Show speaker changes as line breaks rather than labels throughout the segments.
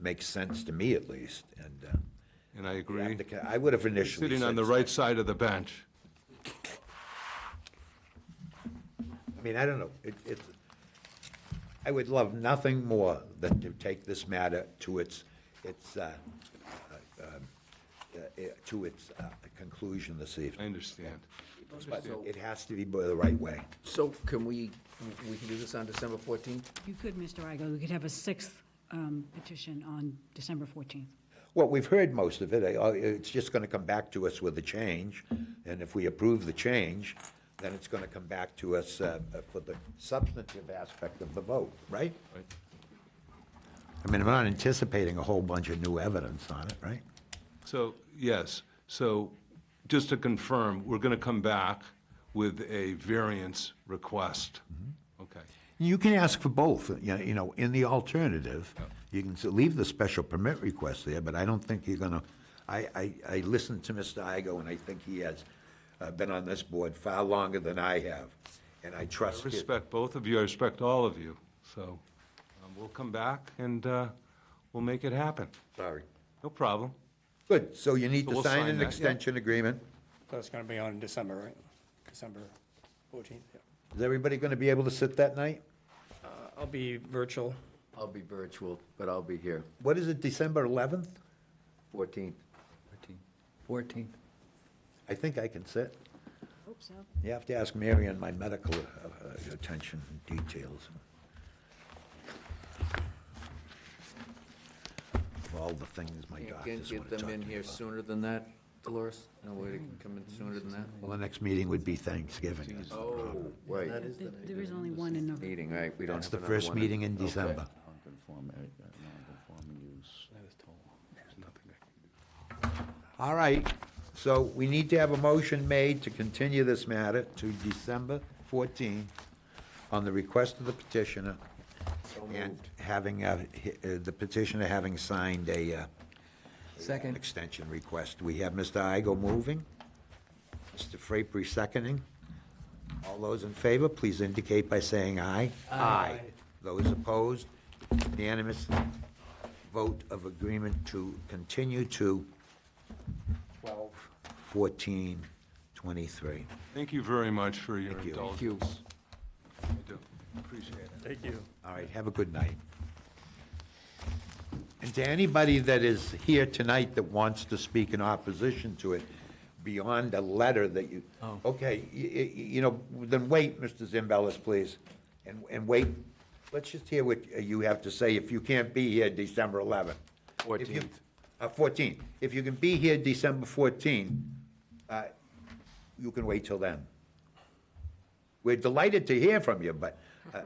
makes sense to me at least, and, uh,
and I
the
agree.
applicant- I would have initially
Sitting on
said
the
so.
right side of the bench.
I mean, I don't know, it, it, I would love nothing more than to take this matter to its, its, uh, uh, um, uh, eh, to its uh, conclusion this
I
evening.
understand.
But it has to be the right way.
So can we, we can do this on December fourteenth?
You could, Mr. Igo, we could have a sixth um, petition on December 14th.
Well, we've heard most of it. I- I- It's just going to come back to us with a change, and if we approve the change, then it's going to come back to us uh, for the substantive aspect of the vote, right?
Right.
I mean, I'm not anticipating a whole bunch of new evidence on it, right?
So, yes, so just to confirm, we're going to come back with a variance request.
Mm-hmm.
Okay,
You can ask for both, you know- you know, in the alternative, you can s- leave the special permit request there, but I don't think you're gonna, I, I, I listened to Mr. Igo, and I think he has uh, been on this board far longer than I have, and I
I
trust his,
respect both of you, I respect all of you, so um, we'll come back and uh, we'll make it happen.
sorry.
No problem.
Good, so you need
So
to
we'll
sign
sign
an
that, yeah.
extension agreement.
So it's gonna be on December, right? December fourteenth, yeah.
Is everybody gonna be able to sit that night?
Uh, I'll be virtual.
I'll be virtual, but I'll be here,
What is it, December eleventh?
fourteenth. Fourteenth.
I think I can sit.
Hope so.
You have to ask Mary on my medical uh, uh, attention and details. Of All the things my
You can
doctors want to
get them
talk to
in
me
here
about.
sooner than that, Dolores? No way they can come in sooner than that?
Well, the next meeting would be Thanksgiving. that's the problem.
Oh, right.
There there is only one in November.
Meeting, right, we don't have another one.
That's the first
in-
meeting in
Okay.
December.
Non-conforming, uh, non-conforming use.
All right, so we need to have a motion made to continue this matter to December 14 on the request of the petitioner and having, uh, hi- uh, the petitioner having signed a uh,
Second.
extension request. We have Mr. Igo moving, Mr. Frapery seconding. All those in favor, please indicate by saying aye. Aye. Those opposed, unanimous vote of agreement to continue to 12, 14, 23.
Thank you very much for your
Thank you.
indulgence.
Thank
you.
I do, appreciate it.
Thank you.
All right, have a good night. And to anybody that is here tonight that wants to speak in opposition to it, beyond a letter that you, okay, y- y- you know, then wait, Mr. Zimbelis, please, and, and wait. Let's just hear what you have to say if you can't be here December 11th. If you-
14th.
Uh, 14. If you can be here December 14, uh, you can wait till then. We're delighted to hear from you, but, uh,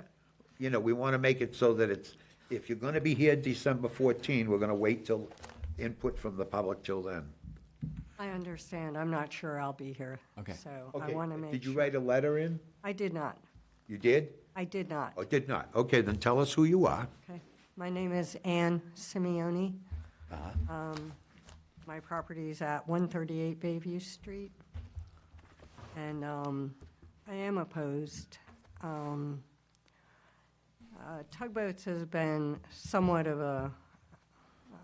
you know, we want to make it so that it's, if you're going to be here December 14, we're going to wait till input from the public till then.
I understand. I'm not sure I'll be here.
Okay.
So I want to make sure.
Did you write a letter in?
I did not.
You did?
I did not.
Or did not? Okay, then tell us who you are.
Okay. My name is Ann Simeoni. Um, My property is at 138 Bayview Street. And um, I am opposed. Um, uh, Tugboats has been somewhat of a,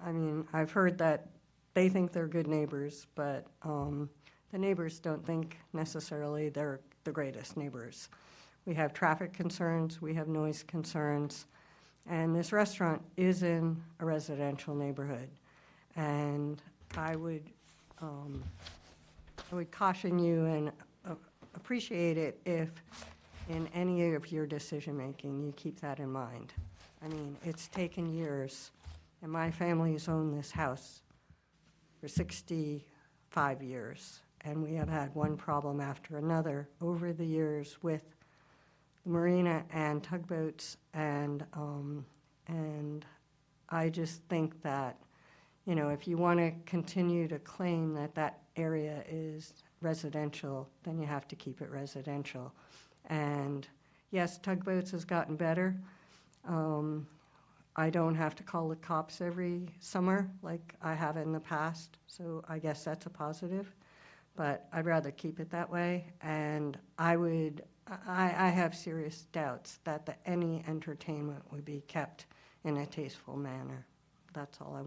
I mean, I've heard that they think they're good neighbors, but um, the neighbors don't think necessarily they're the greatest neighbors. We have traffic concerns, we have noise concerns, and this restaurant is in a residential neighborhood. And I would, um, I would caution you and uh, appreciate it if, in any of your decision-making, you keep that in mind. I mean, it's taken years, and my family's owned this house for 65 years, and we have had one problem after another over the years with the marina and tugboats, and, um, and I just think that, you know, if you want to continue to claim that that area is residential, then you have to keep it residential. And yes, tugboats has gotten better. Um, I don't have to call the cops every summer like I have in the past, so I guess that's a positive. But I'd rather keep it that way, and I would, I, I have serious doubts that the, any entertainment would be kept in a tasteful manner. That's all I